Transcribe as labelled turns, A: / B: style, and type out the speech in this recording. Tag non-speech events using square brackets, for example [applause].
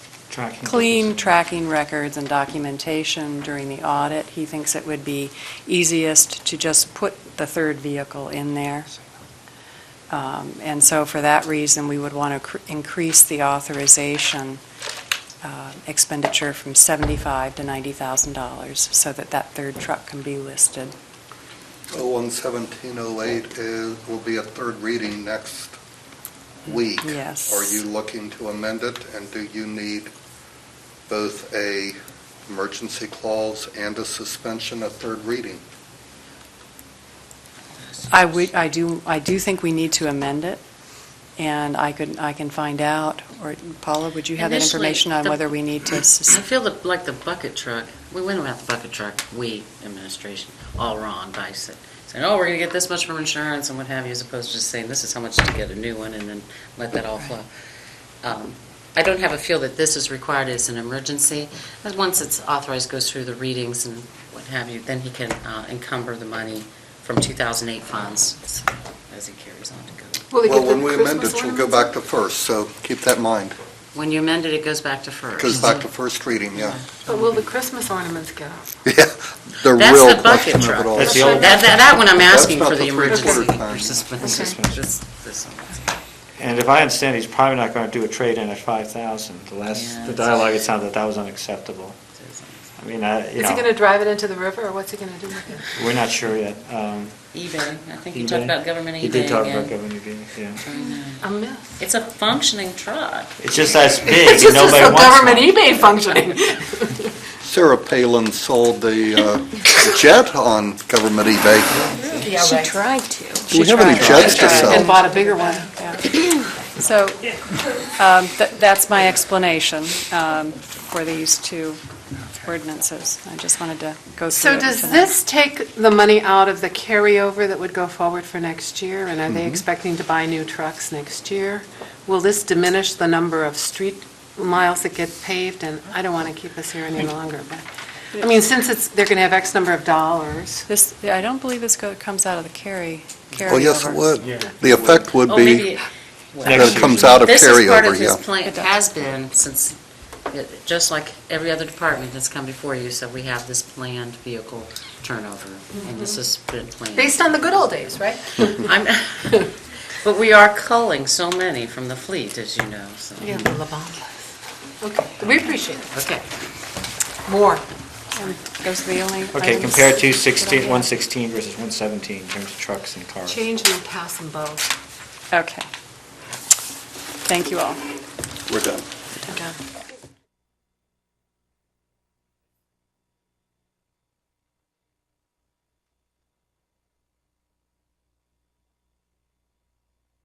A: tracking.
B: clean tracking records and documentation during the audit. He thinks it would be easiest to just put the third vehicle in there. Um, And so for that reason, we would want to increase the authorization uh, expenditure from 75 to $90,000 so that that third truck can be listed.
C: 011708 is, will be a third reading next week.
B: Yes.
C: Are you looking to amend it, and do you need both a emergency clause and a suspension of third reading?
B: I would, I do, I do think we need to amend it, and I could, I can find out, or Paula, would you have that
D: Initially,
B: information on
D: the-
B: whether we need
D: [clears throat]
B: to
D: I
B: sus-
D: feel that, like the bucket truck, we went about the bucket truck, we, administration, all wrong by sa- saying, oh, we're going to get this much from insurance and what have you, as opposed to just saying, this is how much to get a new one and then let that all flow. Um, I don't have a feel that this is required as an emergency. As once it's authorized, goes through the readings and what have you, then he can uh, encumber the money from 2008 funds as he carries on to go.
E: Will they get
C: Well,
E: the
C: when we amend
E: Christmas
C: it, you'll go back
E: ornaments?
C: to first, so keep that in mind.
D: When you amend it, it goes back to first.
C: It goes back to first reading, yeah.
E: But will the Christmas ornaments go?
C: [laughs] The
D: That's
C: real
D: the bucket
C: question of
D: truck.
C: it all.
A: That's the old-
D: That, that, that one I'm
C: That's
D: asking
C: not
D: for
C: the
D: the
C: first
D: emergency
C: order plan.
D: or suspension,
A: Okay.
D: just this one.
A: And if I understand, he's probably not going to do a trade-in at 5,000. The last,
D: Yeah,
A: the
D: that's-
A: dialogue, it sounded that that was unacceptable. I mean, I, you
E: Is he going to
A: know,
E: drive it into the river, or what's he going to do with it?
A: we're not sure yet. Um,
D: eBay, I think you talked
A: eBay?
D: about government eBay.
A: He did talk about
D: and-
A: government eBay, yeah.
E: A myth.
D: It's a functioning truck.
A: It's just
E: [laughs]
A: that's big,
E: It's
A: and
E: just as
A: nobody
E: though
A: wants
E: government
A: one. [laughs]
E: eBay functioning.
C: Sarah Palin sold the uh, jet on government eBay.
F: She tried to.
C: Do we have any
B: She tried.
C: jets to sell?
E: And bought a bigger one.
B: So um, th- that's my explanation um, for these two ordinances. I just wanted to go through
E: So
B: it
E: does
B: tonight.
E: this take the money out of the carryover that would go forward for next year? And
C: Mm-hmm.
E: are they expecting to buy new trucks next year? Will this diminish the number of street miles that get paved? And I don't want to keep us here any longer, but, I mean, since it's, they're going to have X number of dollars.
B: This, I don't believe this go- comes out of the carry, carryover.
C: Oh, yes, it would.
A: Yeah.
C: The effect would
D: Oh,
C: be,
D: maybe-
C: that
A: Next
C: it
A: year's
C: comes
A: eBay.
C: out of
D: This is part of
C: carryover,
D: his
C: yeah.
D: plan,
B: It
D: it
B: does.
D: has been since, it- just like every other department that's come before you, so we have this planned vehicle turnover, and this has been planned.
E: on the good old days, right?
D: I'm, [laughs] but we are culling so many from the fleet, as you know, so.
E: Yeah, the Labandas. Okay, we appreciate it.
D: Okay.
E: More.
B: Those are the only
A: Okay,
B: items
A: compare
B: that I
A: 216,
B: have.
A: 116 versus 117 in terms of trucks and cars.
E: Change in the pass and bow.
B: Okay. Thank you all.
C: We're done.
E: Okay.